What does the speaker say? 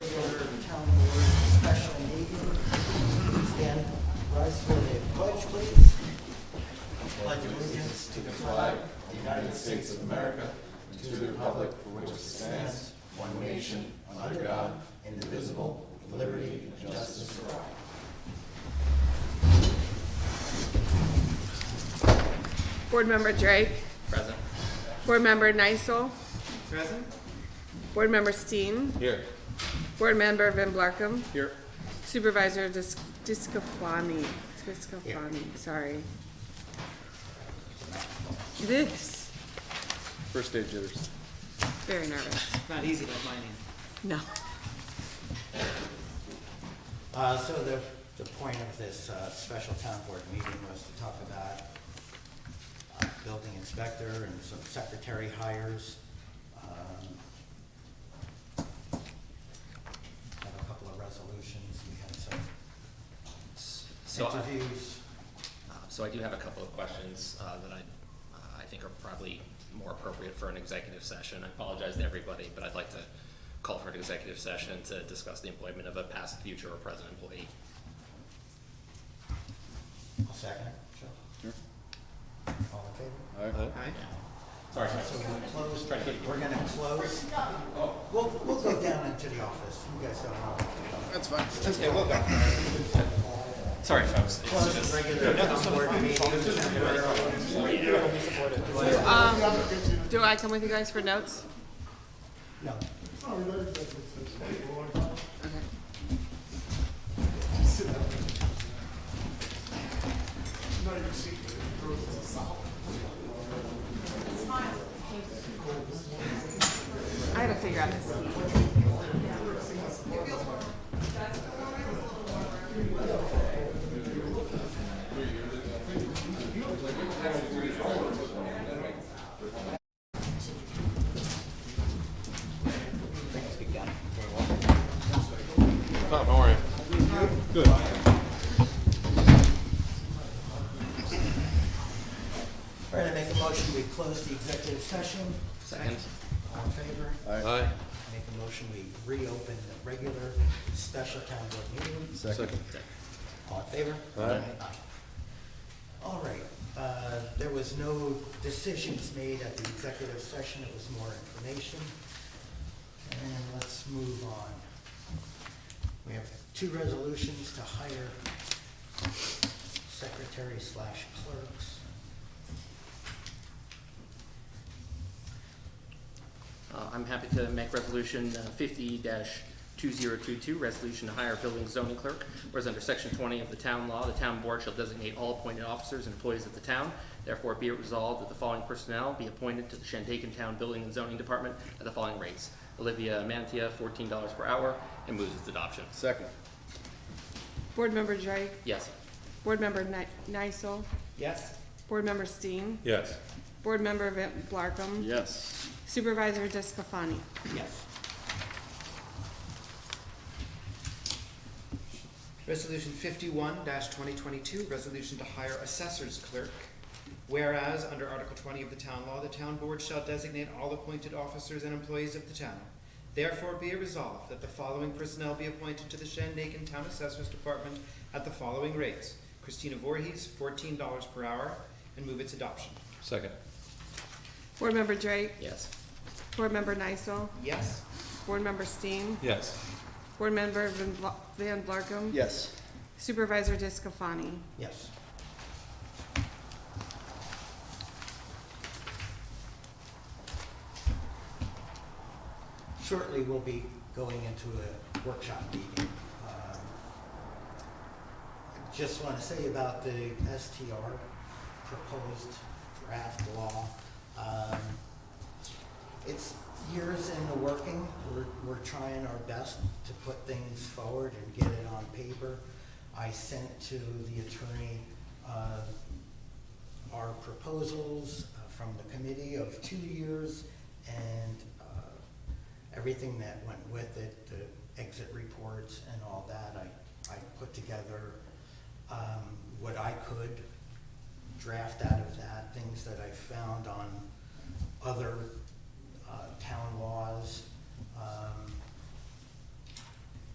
Rise for the pledge, please. Pledge allegiance to the flag Board Member Drake. Present. Board Member Nysel. Present. Board Member Steen. Here. Board Member Van Blarkum. Here. Supervisor Dis- Discofani. Discofani, sorry. This, First day jitters. very nervous. Not easy like mine is. No. Uh, so the, the point of this, uh, special town board meeting was to talk about uh, building inspector and some secretary hires. Um, Have a couple of resolutions, we had some So I, interviews. uh, so I do have a couple of questions uh, that I, uh, I think are probably more appropriate for an executive session. I apologize to everybody, but I'd like to call for an executive session to discuss the employment of a past, future, or present employee. I'll second it. Sure. All in favor? Sorry, So sorry. we'll close, Try to get you. we're gonna close. We'll, we'll go down into the office. You guys don't know. That's fine. sorry, folks. It's Close just- the regular town board meeting temporarily. Um, do I come with you guys for notes? No, I gotta figure out this. Tom, how are you? Good. we're gonna make a motion, we close the executive session. Second. All in favor? Aye. Make a motion, we reopen the regular special town board meeting. Second. All in favor? Aye. All right, uh, there was no decisions made at the executive session, it was more information. And let's move on. We have two resolutions to hire secretary slash clerks. Uh, I'm happy to make resolution uh, fifty two zero two two, resolution to hire building zoning clerk. Whereas under section twenty of the town law, the town board shall designate all appointed officers and employees of the town. Therefore, be it resolved that the following personnel be appointed to the Shandaken Town Building and Zoning Department at the following rates. Olivia Mantia, fourteen dollars per hour, and moves its adoption. Second. Board Member Drake. Yes. Board Member Ni- Nysel. Yes. Board Member Steen. Yes. Board Member Van Blarkum. Yes. Supervisor Discofani. Yes. Resolution fifty-one twenty twenty-two, resolution to hire assessor's clerk. Whereas, under Article twenty of the town law, the town board shall designate all appointed officers and employees of the town. Therefore be it resolved that the following personnel be appointed to the Shandaken Town Assessor's Department at the following rates. Christina Voorhees, fourteen dollars per hour, and move its adoption. Second. Board Member Drake. Yes. Board Member Nysel. Yes? Board Member Steen. Yes. Board Member Van Bla- Van Blarkum. Yes. Supervisor Discofani. Yes. Shortly, we'll be going into a workshop meeting. Um, I Just want to say about the STR proposed draft law. Um, It's years in the working. We're, we're trying our best to put things forward and get it on paper. I sent to the attorney, uh, our proposals uh, from the committee of two years and, uh, everything that went with it, the exit reports and all that. I, I put together, um, what I could draft out of that, things that I found on other uh, town laws. Um,